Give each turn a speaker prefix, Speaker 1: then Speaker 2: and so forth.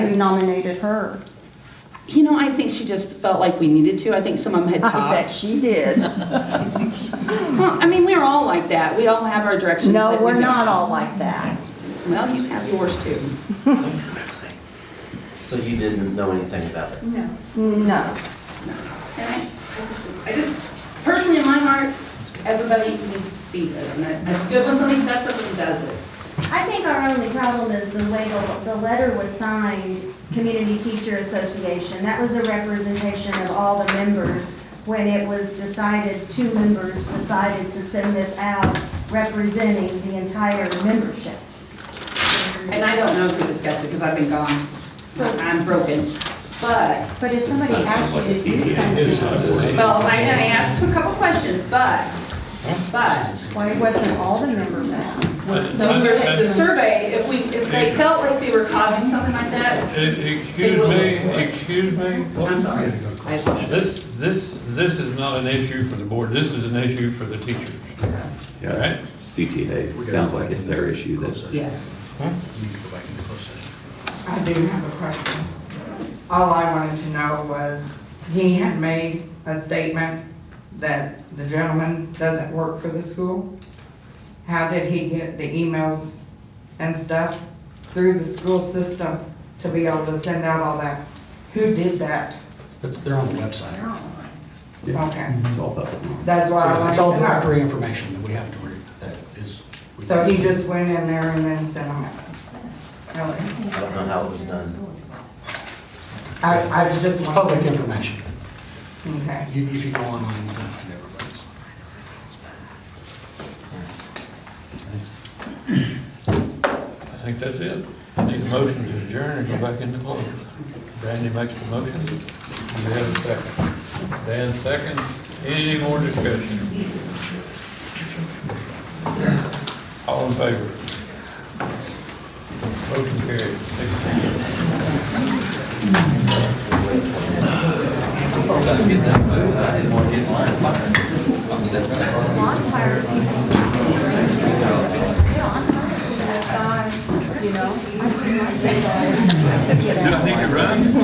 Speaker 1: nominated her.
Speaker 2: You know, I think she just felt like we needed to. I think some of them had
Speaker 3: I bet
Speaker 2: talked.
Speaker 3: she did.
Speaker 2: Well, I mean, we're all like that. We all have our directions.
Speaker 3: No,
Speaker 2: that we
Speaker 3: we're
Speaker 2: go.
Speaker 3: not all like that.
Speaker 2: Well, you have yours too.
Speaker 4: So you didn't know anything about it?
Speaker 2: No.
Speaker 5: Mm-hmm.
Speaker 3: No.
Speaker 2: And I, I just, I just, personally in my heart, everybody needs to see this. And I- it's good when somebody steps up and does it.
Speaker 5: I think our only problem is the way the, the letter was signed, Community Teacher Association. That was a representation of all the members when it was decided, two members decided to send this out representing the entire membership.
Speaker 2: And I don't know if we discussed it because I've been gone. So I'm broken. But,
Speaker 5: But if somebody asks you to do something,
Speaker 2: well, I, I asked a couple questions, but, but
Speaker 5: why wasn't all the members asked?
Speaker 2: the survey, if we, if they felt like we were causing something like that,
Speaker 6: Excuse me, excuse me.
Speaker 2: I'm sorry. I apologize.
Speaker 6: This, this, this is not an issue for the board, this is an issue for the teachers, all
Speaker 7: Yeah,
Speaker 6: right?
Speaker 7: CTA, sounds like it's their issue that,
Speaker 2: Yes.
Speaker 8: I do have a question. All I wanted to know was, he had made a statement that the gentleman doesn't work for the school. How did he get the emails and stuff through the school system to be able to send out all that? Who did that?
Speaker 9: It's- They're on the website.
Speaker 7: Yeah.
Speaker 8: Okay,
Speaker 7: it's all public. knowledge.
Speaker 8: that's what I wanted
Speaker 9: It's all
Speaker 8: to know.
Speaker 9: directory information that we have to read, that is.
Speaker 8: So he just went in there and then sent them out? Okay.
Speaker 4: I don't know how it was done.
Speaker 8: I, I was just
Speaker 9: It's public
Speaker 8: wondering.
Speaker 9: information.
Speaker 8: Okay.
Speaker 9: You- If you go online, you can find everybody's.
Speaker 6: I think that's it. I need a motion to adjourn and go back into closed. Brandy makes the motion. Do we have a second? Dan seconds. Any more discussion? All in favor? Motion carried. Six zero.
Speaker 4: I didn't want to get in line.
Speaker 5: I'm tired of people saying, "Yeah, I'm tired of that guy," you know? I think my dad-
Speaker 6: Do I need to run?